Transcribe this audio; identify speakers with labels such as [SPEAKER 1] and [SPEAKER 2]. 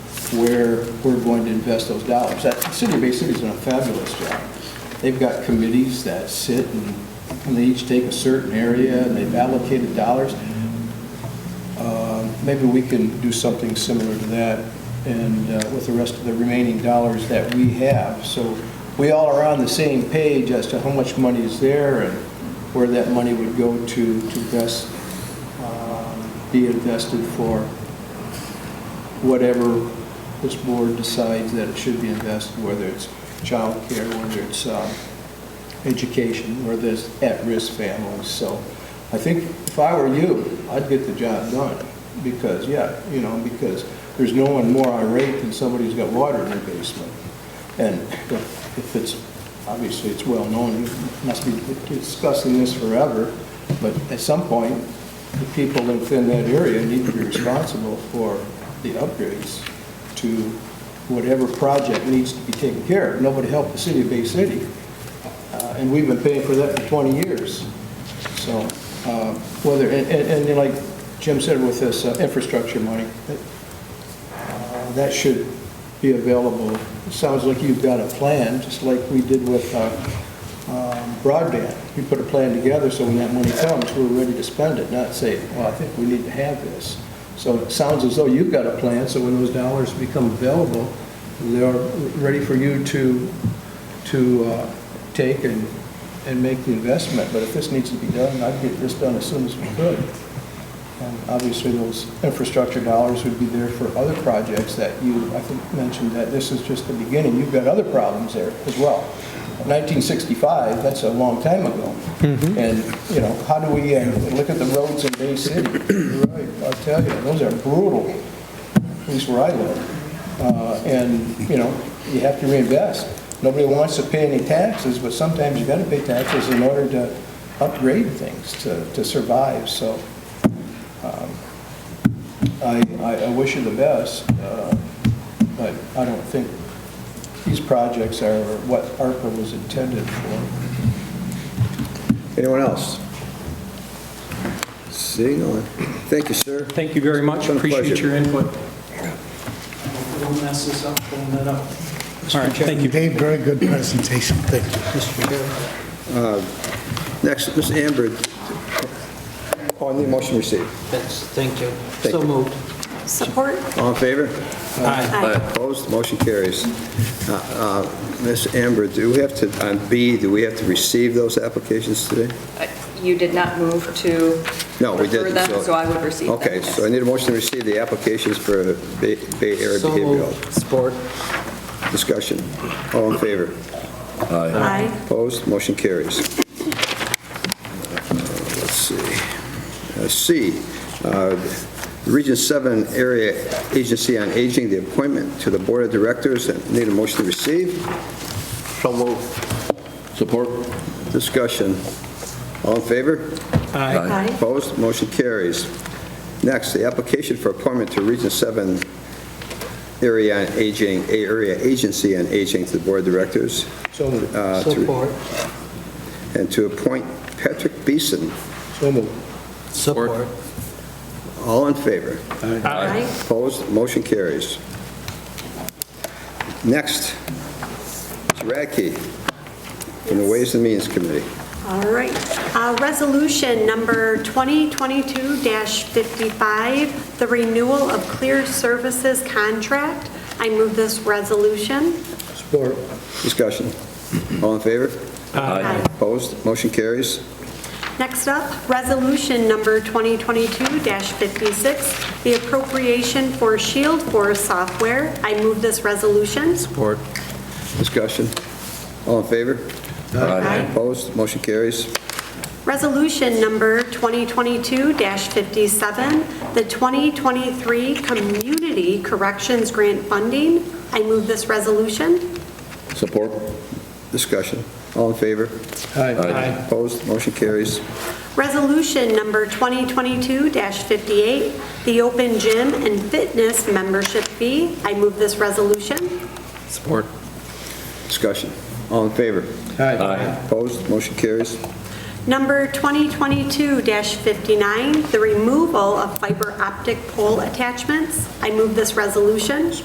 [SPEAKER 1] where we're going to invest those dollars. That, the City of Bay City's done a fabulous job. They've got committees that sit and, and they each take a certain area and they've allocated dollars. Um, Maybe we can do something similar to that and uh, with the rest of the remaining dollars that we have. So we all are on the same page as to how much money is there and where that money would go to, to best um, be invested for whatever this board decides that it should be invested, whether it's childcare, whether it's um, education, whether it's at-risk families. So I think if I were you, I'd get the job done because, yeah, you know, because there's no one more irate than somebody who's got water in their basement. And if it's, obviously, it's well-known, you must be discussing this forever, but at some point, the people within that area need to be responsible for the upgrades to whatever project needs to be taken care of. Nobody helped the city of Bay City, uh, and we've been paying for that for 20 years. So uh, whether, and, and and like Jim said with this uh, infrastructure money, that uh, that should be available. Sounds like you've got a plan, just like we did with uh, um, broadband. We put a plan together, so when that money comes, we're ready to spend it, not say, well, I think we need to have this. So it sounds as though you've got a plan, so when those dollars become available, they're ready for you to, to uh, take and, and make the investment. But if this needs to be done, I'd get this done as soon as we could. And obviously, those infrastructure dollars would be there for other projects that you, I think, mentioned that this is just the beginning. You've got other problems there as well. 1965, that's a long time ago. And, you know, how do we, uh, look at the roads in Bay City, You're right, I'll tell you, those are brutal, at least where I live. Uh, And, you know, you have to reinvest. Nobody wants to pay any taxes, but sometimes you gotta pay taxes in order to upgrade things, to, to survive, so. I, I I wish you the best, uh, but I don't think these projects are what ARPA was intended for.
[SPEAKER 2] Anyone else? Seeing none. Thank you, sir.
[SPEAKER 3] Thank you very much,
[SPEAKER 2] It's been a
[SPEAKER 3] appreciate
[SPEAKER 2] pleasure.
[SPEAKER 3] your input.
[SPEAKER 1] Don't mess this up, don't that up.
[SPEAKER 3] All right, thank you.
[SPEAKER 4] Dave, very good presentation, thank you.
[SPEAKER 2] Next, Ms. Amber, on the motion received.
[SPEAKER 5] That's, thank you.
[SPEAKER 2] Thank
[SPEAKER 5] So
[SPEAKER 2] you.
[SPEAKER 5] moved.
[SPEAKER 6] Support?
[SPEAKER 2] All in favor?
[SPEAKER 6] Aye.
[SPEAKER 2] Opposed? Motion carries. Uh, uh, Ms. Amber, do we have to, on B, do we have to receive those applications today?
[SPEAKER 6] You did not move to
[SPEAKER 2] No, we
[SPEAKER 6] refer
[SPEAKER 2] didn't.
[SPEAKER 6] them, so I would receive them.
[SPEAKER 2] Okay,
[SPEAKER 6] yes.
[SPEAKER 2] so I need a motion to receive the applications for Bay Bay Area
[SPEAKER 5] So
[SPEAKER 2] Behavioral
[SPEAKER 5] moved. Support.
[SPEAKER 2] Discussion. All in favor?
[SPEAKER 6] Aye.
[SPEAKER 2] Opposed, motion carries. Uh, Let's see. Uh, C, uh, Region 7 Area Agency on Aging, the appointment to the Board of Directors. Need a motion to receive?
[SPEAKER 7] So moved. Support?
[SPEAKER 2] Discussion. All in favor?
[SPEAKER 3] Aye.
[SPEAKER 6] Aye.
[SPEAKER 2] Opposed, motion carries. Next, the application for appointment to Region 7 Area on Aging, Area Agency on Aging to the Board of Directors.
[SPEAKER 1] So moved,
[SPEAKER 2] uh, to-
[SPEAKER 5] Support.
[SPEAKER 2] And to appoint Patrick Beeson.
[SPEAKER 1] so moved.
[SPEAKER 5] Support.
[SPEAKER 2] All in favor?
[SPEAKER 6] Aye.
[SPEAKER 2] Opposed, motion carries. Next, Mr. Radke from the Ways and Means Committee.
[SPEAKER 8] All right. Uh, Resolution number 2022-55, the renewal of Clear Services contract. I move this resolution.
[SPEAKER 1] Support.
[SPEAKER 2] Discussion. All in favor?
[SPEAKER 8] Aye.
[SPEAKER 2] Opposed, motion carries.
[SPEAKER 8] Next up, resolution number 2022-56, the appropriation for Shield Force software. I move this resolution.
[SPEAKER 5] Support.
[SPEAKER 2] Discussion. All in favor?
[SPEAKER 8] Aye.
[SPEAKER 2] Opposed, motion carries.
[SPEAKER 8] Resolution number 2022-57, the 2023 Community Corrections Grant Funding. I move this resolution.
[SPEAKER 7] Support?
[SPEAKER 2] Discussion. All in favor? Opposed, motion carries.
[SPEAKER 8] Resolution number 2022-58, the Open Gym and Fitness Membership Fee. I move this resolution.
[SPEAKER 5] Support.
[SPEAKER 2] Discussion. All in favor? Opposed, motion carries.
[SPEAKER 8] Number 2022-59, the removal of fiber optic pole attachments. I move this resolution.